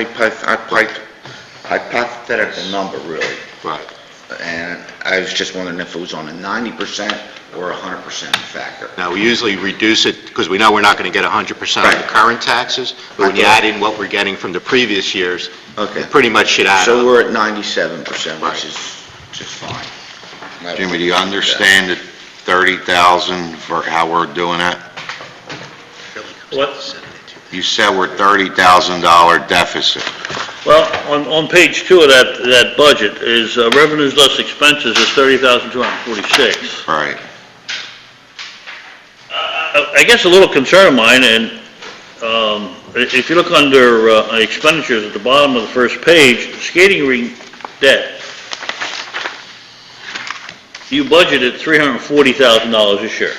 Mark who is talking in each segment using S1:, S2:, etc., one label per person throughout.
S1: hypoth- hypoth- hypothetical number, really.
S2: Right.
S1: And I was just wondering if it was on a 90% or a 100% factor.
S2: Now, we usually reduce it, because we know we're not going to get 100% of the
S1: Right.
S2: current taxes, but when you
S1: Okay.
S2: add in what we're getting from the previous years,
S1: Okay.
S2: it pretty much should add
S1: So
S2: up.
S1: we're at 97%,
S2: Right.
S1: which is just fine.
S3: Jimmy, do you understand that 30,000 for how we're doing it?
S4: What,
S3: You said we're $30,000 deficit.
S4: well, on, on page two of that, that budget is uh, revenues less expenses is 30,246.
S3: Right.
S4: Uh, I I guess a little concern of mine, and um, i- if you look under uh, expenditures at the bottom of the first page, skating rink debt, you budgeted $340,000 this year.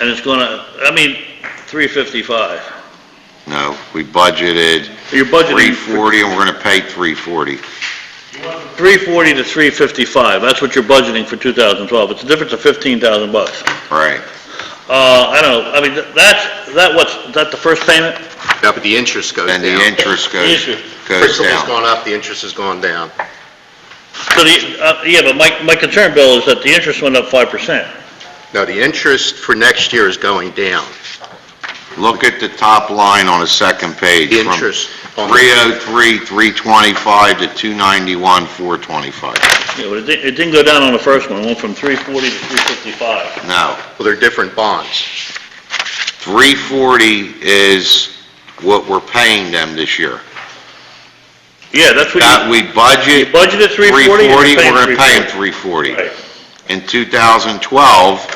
S4: And it's gonna, I mean, 355.
S3: No, we budgeted
S4: Your budgeting
S3: 340 and we're going to pay 340.
S4: 340 to 355, that's what you're budgeting for 2012. It's a difference of 15,000 bucks.
S3: Right.
S4: Uh, I don't know, I mean, th- that's, that what's, is that the first payment?
S2: Yeah, but the interest goes down.
S3: Then the interest goes,
S4: Issue.
S3: goes
S2: Principal's
S3: down.
S2: gone up, the interest has gone down.
S4: So the, uh, yeah, but my, my concern, Bill, is that the interest went up 5%.
S2: No, the interest for next year is going down.
S3: Look at the top line on the second page.
S2: The
S3: from
S2: interest on the-
S3: 303, 325 to 291, 425.
S4: Yeah, but it didn't, it didn't go down on the first one, it went from 340 to 355.
S3: No.
S2: Well, they're different bonds.
S3: 340 is what we're paying them this year.
S4: Yeah, that's what
S3: That
S4: you,
S3: we budget.
S4: You budgeted 340, and you're paying
S3: We're gonna pay them
S4: 340.
S3: 340. In 2012,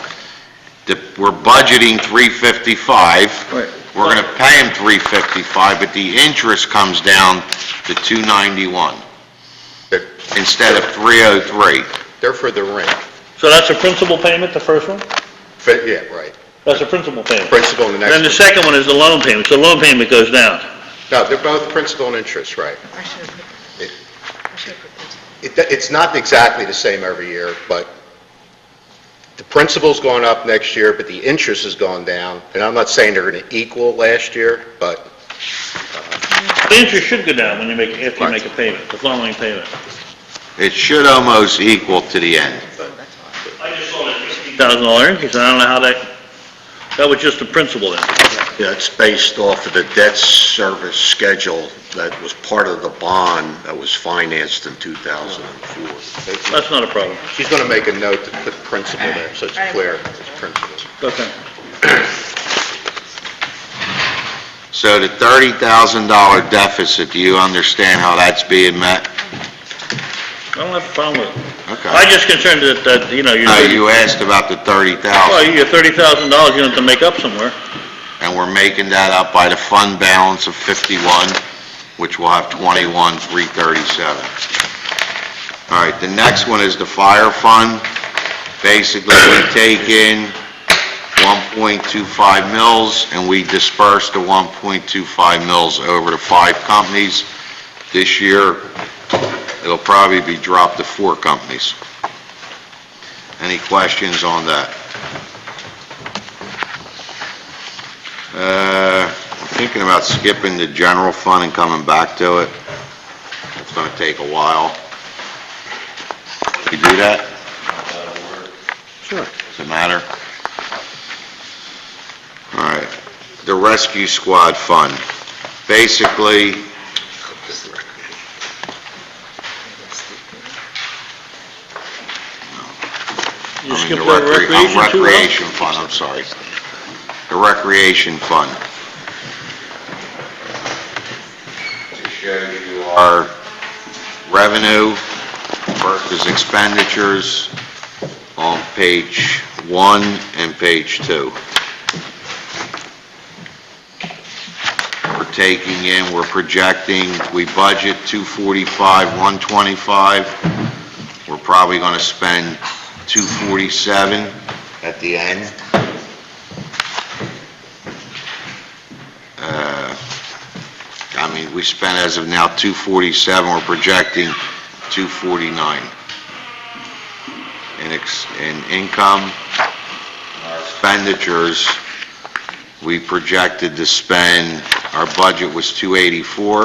S3: the- we're budgeting 355.
S1: Right.
S3: We're gonna pay them 355, but the interest comes down to 291
S2: They're,
S3: instead of 303.
S2: they're for the rent.
S4: so that's a principal payment, the first one?
S2: But, Yeah, right.
S4: That's a principal payment.
S2: Principal and the
S4: Then the
S2: next.
S4: second one is the loan payment, so loan payment goes down.
S2: No, they're both principal and interest, right.
S5: I should have put,
S2: It-
S5: I should have put this.
S2: It- It's not exactly the same every year, but the principal's gone up next year, but the interest has gone down. And I'm not saying they're going to equal last year, but
S4: The interest should go down when you make, after you
S3: Right.
S4: make a payment, the following payment.
S3: It should almost equal to the end.
S5: Oh, that's why.
S4: I just saw that thousand dollar increase, and I don't know how that, that was just the principal then.
S6: Yeah, it's based off of the debt service schedule that was part of the bond that was financed in 2004.
S4: That's not a problem.
S2: she's going to make a note to put principal there, so it's clear, it's principal.
S4: Okay.
S3: So the $30,000 deficit, do you understand how that's being met?
S4: I don't have a problem with it.
S3: Okay.
S4: I'm just concerned that, that, you know, you're,
S3: No, Uh, you asked about the
S4: well,
S3: 30,000,
S4: you got thirty thousand dollars you have to make up somewhere.
S3: and we're making that up by the fund balance of 51, which will have 21, 337. All right, the next one is the fire fund. Basically, we take in 1.25 mils, and we disperse the 1.25 mils over to five companies. This year, it'll probably be dropped to four companies. Any questions on that? Uh, I'm thinking about skipping the general fund and coming back to it. It's gonna take a while. You do that? Sure. Does it matter? All right. The Rescue Squad Fund. Basically,
S4: You
S3: I mean,
S4: skipped
S3: the
S4: over
S3: recre-
S4: recreation
S3: uh, Recreation
S4: too, Ralph?
S3: Fund, I'm sorry. The Recreation Fund. To show you our revenue versus expenditures on page one and page two. We're taking in, we're projecting, we budget 245, 125. We're probably going to spend 247 at the end. Uh, I mean, we spent as of now 247, we're projecting 249 in ex- in income. Our expenditures, we projected to spend Our budget was 284.